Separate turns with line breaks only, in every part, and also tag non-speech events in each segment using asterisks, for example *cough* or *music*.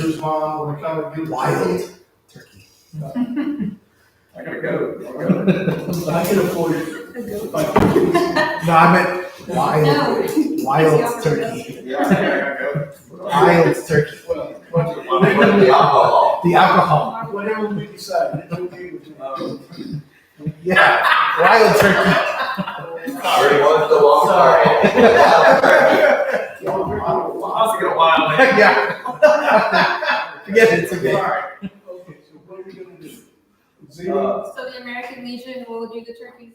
his mom when they come and get
Wild turkey.
I gotta go.
I can afford it.
No, I meant wild,
No.
wild turkey.
Yeah, I gotta go.
Wild turkey.
Well,
With the alcohol.
The alcohol.
whatever we decide, it's okay with you. um,
Yeah, wild turkey. *laughs*
Three months to walk
I'll have to get a wild man.
yeah. *laughs* Forget it. It's okay.
Okay, so what are we gonna do? Zero,
Uh,
So the American Legion will do the turkeys.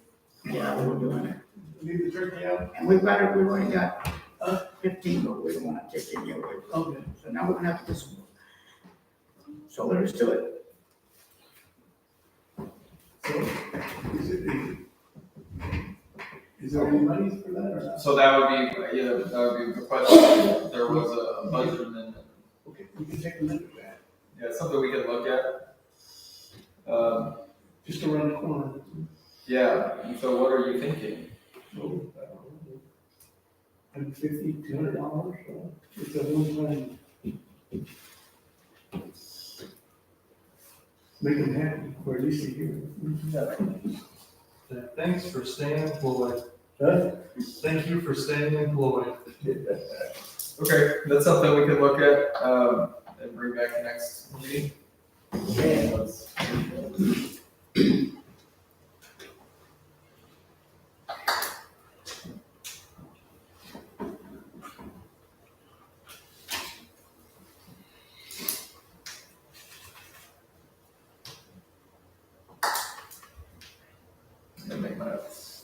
Yeah, we were doing it.
leave the turkey out?
And we better, we only got uh, fifteen, but we don't wanna take any away.
Okay.
So now we're gonna have to do some more. So let us do it.
So, is it, is it? Is there any money for that or not?
So that would be, yeah, that would be the question, there was a a budget amendment,
Okay, we can take a look at that,
yeah, something we could look at. Um,
just around the corner.
yeah, and so what are you thinking?
Hundred fifty, two hundred dollars, so it's a little money. Make them happy, or at least a year.
Thanks for staying employed.
Huh?
Thank you for staying employed.
Okay, that's something we could look at, um, and bring back next meeting. Let's- Let me make my notes.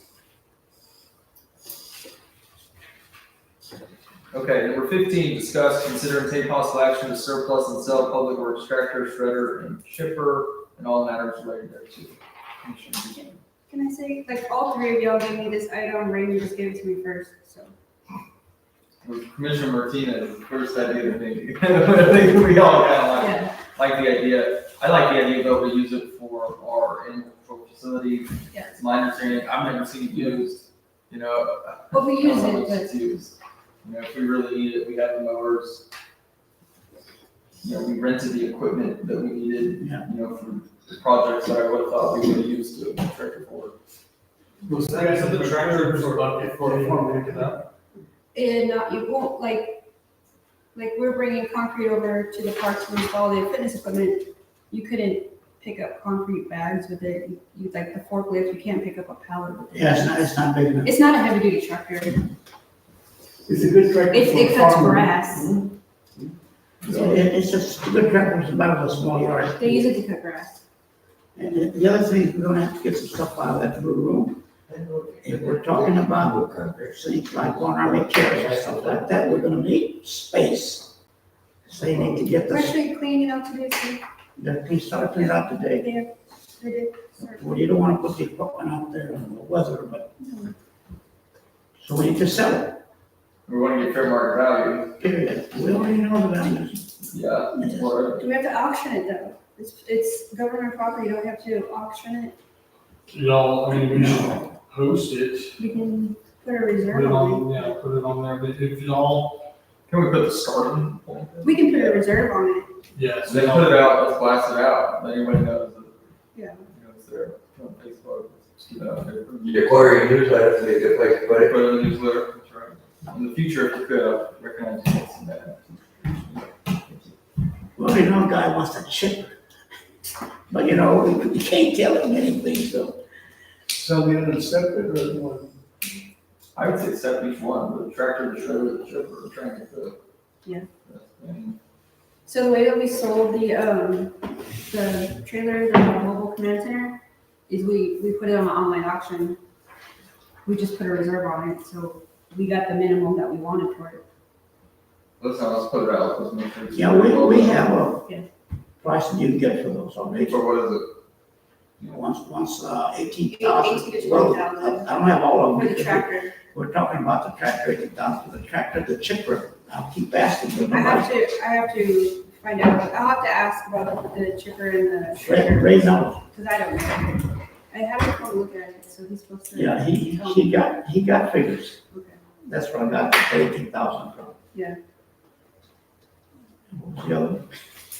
Okay, number fifteen, discuss, consider and take possible action to surplus and sell public works tractor, shredder, and chipper, and all matters related thereto. Commission begin.
Can I say, like, all three of y'all gave me this item, Randy just gave it to me first, so.
Commissioner Martinez, first idea to me. I think *laughs* we all kind of
Yeah,
like, like the idea. I like the idea though, we use it for our animal control facility.
yes.
It's my understanding, I've never seen it used, you know.
But we use
how
it,
much
but
It's used. Uh, You know, if we really need it, we have the mowers. You know, we rented the equipment that we needed, you
Yeah.
know, for projects that I would have thought we would have used to tractor for.
Was
I guess the tractors were bucket for, for picking up.
And not, you won't, like, like, we're bringing concrete over to the parks to install the fitness equipment. You couldn't pick up concrete bags with it, you, like, the forklift, you can't pick up a pallet with it.
Yeah, it's not, it's not big enough.
It's not a heavy-duty tractor, it,
It's a good tractor. for
it cuts
farming.
grass,
It- it- It's just, the good tractor was about a small yard.
they use it to cut grass.
And the- the other thing, we're gonna have to get some stuff out of that blue room. If we're talking about things like one army chairs or stuff like that, we're gonna need space. So you need to get
We're
the,
actually cleaning out today, so
the police start cleaning out today.
they did, sorry.
Well, you don't wanna put the equipment out there in the weather, but. So we need to sell it,
We want to get fair market value.
period. We already know the values.
Yeah. Or,
Do we have to auction it though? It's, it's government property, don't we have to auction it?
Y'all, I mean, we should host it,
We can put a
put
reserve
it
on
on, yeah, put it on there, but if y'all,
can we put the starting point?
it. We can put a reserve on it.
yes.
They put it out, let's blast it out. Then Anybody knows. that,
Yeah.
You know, it's there on Facebook. it's, you know, there.
You declare your newsletter to be a good place to put it.
Put it in the newsletter, that's right. In the future, if you could, I recognize you what's in that.
We already know a guy wants to chip. But you know, we- we can't tell him anything, so.
So we don't accept it or we want-
I would say accept each one, the tractor, the shredder, the chipper, the train, the.
Yeah.
And
So the way that we sold the, um, the trailer, the mobile command center, is we, we put it on an online auction. We just put a reserve on it, so we got the minimum that we wanted for it.
Let's not, let's put it out, let's make sure. it's-
Yeah, we, we have
Yeah.
a price that you can get for those already.
But what is it?
Once, once, uh, eighteen
Eighteen to
thousand.
20,000.
I don't have all of
For
them.
the tractor,
We're talking about the tractor, eighteen thousand for the tractor, the chipper. I'll keep asking, but
I
nobody's
have to, I have to find out, I'll have to ask about the chipper and the shredder.
raising up.
Because I don't know. I haven't come look at it, so he's supposed to.
Yeah, he, he got, he got figures.
Okay.
That's where I got the eighteen thousand from.
Yeah.
What was the other?